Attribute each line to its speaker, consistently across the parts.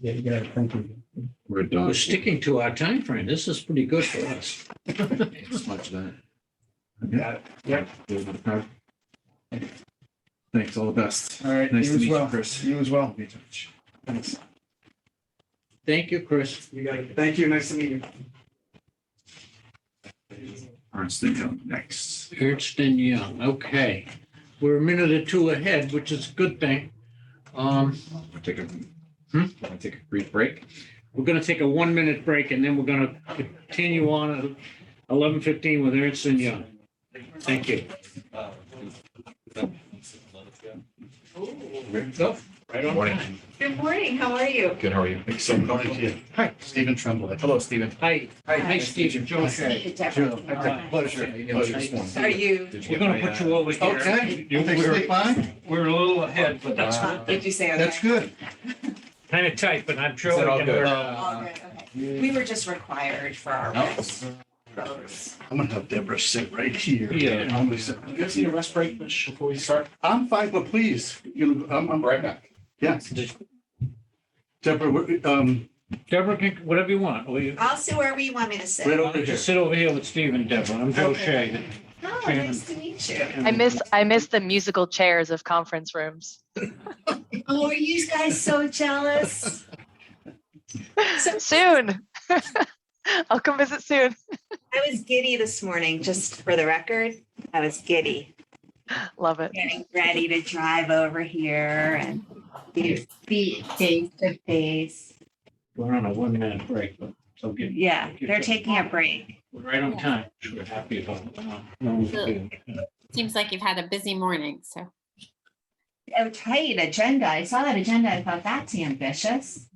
Speaker 1: Yeah, you got it. Thank you.
Speaker 2: We're
Speaker 3: We're
Speaker 2: done.
Speaker 3: sticking to our time frame. This is pretty good for us.
Speaker 2: It's much that.
Speaker 1: Got it. Yep.
Speaker 2: Thanks, all the best.
Speaker 1: All right.
Speaker 2: Nice
Speaker 1: You
Speaker 2: to
Speaker 1: as
Speaker 2: meet you,
Speaker 1: well.
Speaker 2: Chris.
Speaker 1: You as well.
Speaker 2: Be in touch.
Speaker 1: Thanks.
Speaker 3: Thank you, Chris.
Speaker 1: You got it. Thank you. Nice to meet you.
Speaker 2: Ernst and Young next.
Speaker 3: Ernst and Young, okay. We're a minute or two ahead, which is a good thing. Um,
Speaker 2: Wanna Take a,
Speaker 3: Hmm?
Speaker 2: wanna take a brief break.
Speaker 3: we're gonna take a one-minute break and then we're gonna continue on at eleven fifteen with Ernst and Young. Thank you. Oh, Go, Right on
Speaker 4: Morning.
Speaker 3: time.
Speaker 5: Good morning, how are you?
Speaker 4: Good, how are you? Thanks so much. Hi, Stephen Tremblay. Hello, Stephen.
Speaker 3: Hi, hi, Stephen, Joe Shea.
Speaker 5: Steve, Deborah.
Speaker 4: Pleasure. Pleasure this morning.
Speaker 5: Are you,
Speaker 4: Did you
Speaker 3: We're
Speaker 4: get
Speaker 3: gonna
Speaker 4: my,
Speaker 3: put
Speaker 4: uh,
Speaker 3: you over here.
Speaker 6: Okay, you think we're fine?
Speaker 3: We're a little ahead, but that's
Speaker 4: Wow.
Speaker 5: did you say okay?
Speaker 6: That's good.
Speaker 3: kind of tight, but I'm sure.
Speaker 4: Is that
Speaker 3: we
Speaker 4: all
Speaker 3: can
Speaker 4: good?
Speaker 3: work-
Speaker 5: All
Speaker 6: Uh,
Speaker 5: good, okay. We were just required for our
Speaker 6: no.
Speaker 5: rest. votes.
Speaker 6: I'm gonna have Deborah sit right here.
Speaker 3: Yeah.
Speaker 6: I'm gonna sit- You guys need a rest break before we start? I'm fine, but please, you know, I'm, I'm,
Speaker 4: Right back.
Speaker 6: yeah. Deborah, we're, um,
Speaker 3: Deborah, can- whatever you want. Will you?
Speaker 5: I'll see where we want me to
Speaker 6: right
Speaker 5: sit.
Speaker 3: Why
Speaker 6: over
Speaker 3: don't you
Speaker 6: here.
Speaker 3: sit over here with Steve and Deborah? I'm Joe
Speaker 5: Okay.
Speaker 3: Shea.
Speaker 5: Oh, nice to meet you.
Speaker 3: And-
Speaker 7: I miss I miss the musical chairs of conference rooms.
Speaker 5: Oh, are you guys so jealous? So-
Speaker 7: soon. I'll come visit soon.
Speaker 5: I was giddy this morning, just for the record. I was giddy,
Speaker 7: Love it.
Speaker 5: getting ready to drive over here and be be face to face.
Speaker 3: We're on a one minute break, but so get,
Speaker 5: Yeah, they're taking a break.
Speaker 3: we're right on time. which We're happy about. it.
Speaker 8: Seems like you've had a busy morning, so.
Speaker 5: Oh, tight agenda. I saw that agenda. I thought that's ambitious.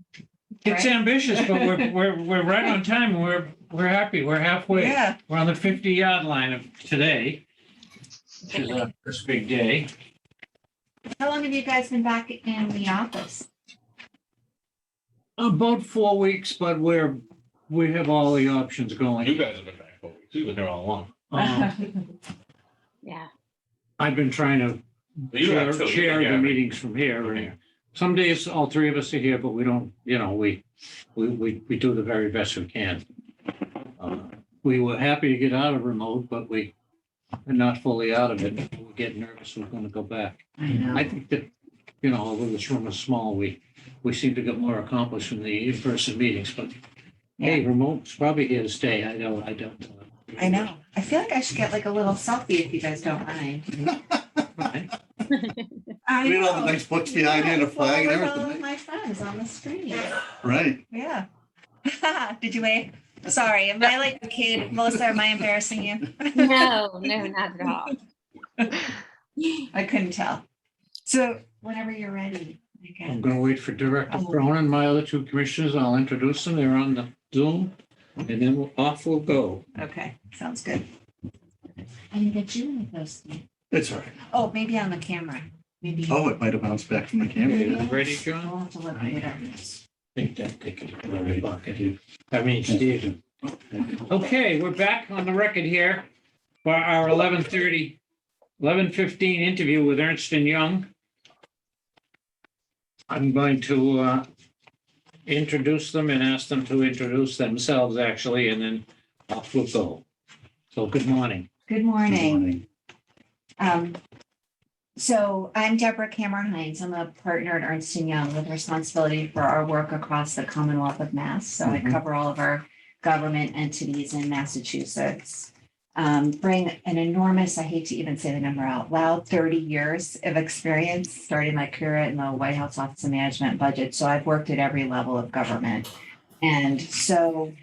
Speaker 3: It's ambitious, but we're, we're, we're right on time. and We're, we're happy. We're halfway.
Speaker 5: Yeah.
Speaker 3: We're on the fifty yard line of today. Which is our first big day.
Speaker 5: How long have you guys been back in the office?
Speaker 3: About four weeks, but we're, we have all the options going.
Speaker 4: guys have been back for weeks. You've been here all along.
Speaker 3: Um,
Speaker 5: Oh,
Speaker 8: Yeah,
Speaker 3: I've been trying to
Speaker 4: You
Speaker 3: chair,
Speaker 4: have too. You've been
Speaker 3: chair the
Speaker 4: here.
Speaker 3: meetings from here. and Some days all three of us are here, but we don't, you know, we, we, we, we do the very best we can. Uh, We were happy to get out of remote, but we are not fully out of it. We get nervous, we're gonna go back.
Speaker 5: I know.
Speaker 3: I think that, you know, although this room is small, we, we seem to get more accomplished from the in-person meetings, but hey, remote's probably here to stay. I know, I don't. uh,
Speaker 5: I know. I feel like I should get like a little selfie if you guys don't mind. I
Speaker 6: We had all the nice books behind you and a flag and
Speaker 5: Well, with All
Speaker 6: everything,
Speaker 5: of my friends on the screen.
Speaker 6: right?
Speaker 5: Yeah. Did you wave? Sorry, am I like a kid? Melissa, am I embarrassing you?
Speaker 8: no, no, not at all.
Speaker 5: I couldn't tell. So whenever you're ready, I guess.
Speaker 3: I'm gonna wait for Director Cronin and my other two commissioners. I'll introduce them. They're on the Zoom. And then we'll- off we'll go.
Speaker 5: Okay, sounds good. I didn't get you in those.
Speaker 6: It's all right.
Speaker 5: Oh, maybe on the camera. Maybe.
Speaker 6: Oh, it might have bounced back from the
Speaker 3: You
Speaker 6: camera.
Speaker 3: Ready, John?
Speaker 5: I'll have to look later.
Speaker 3: Think that they could put a buck at you. I mean, Steve. Okay, we're back on the record here for our 11:30, 11:15 interview with Ernst and Young. I'm going to uh, introduce them and ask them to introduce themselves, actually, and then off we'll go. So good morning.
Speaker 5: Good morning. Um, so I'm Deborah Cameron Hines. I'm a partner at Ernst and Young with responsibility for our work across the Commonwealth of Mass. So I
Speaker 3: Mhm.
Speaker 5: cover all of our government entities in Massachusetts. Um, bring an enormous, I hate to even say the number out loud, 30 years of experience, starting my career in the White House Office of Management and Budget. So I've worked at every level of government. And so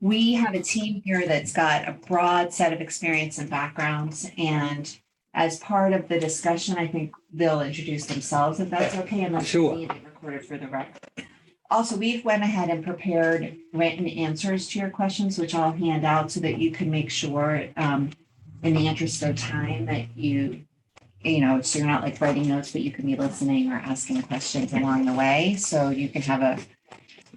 Speaker 5: we have a team here that's got a broad set of experience and backgrounds. And as part of the discussion, I think they'll introduce themselves if that's okay, unless it's
Speaker 3: Sure.
Speaker 5: being recorded for the record. Also, we've went ahead and prepared written answers to your questions, which I'll hand out so that you can make sure, um, in the interest of time that you, you know, so you're not like writing notes, but you can be listening or asking questions along the way. So you can have a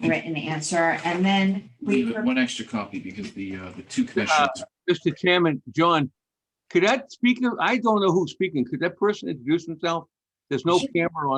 Speaker 5: written answer. And then we.
Speaker 4: Leave it One extra copy because the, uh, the two commissioners.
Speaker 9: Mr. Chairman, John, could that speaker, I don't know who's speaking, could that person introduce himself? There's no
Speaker 5: Sure.
Speaker 9: camera on.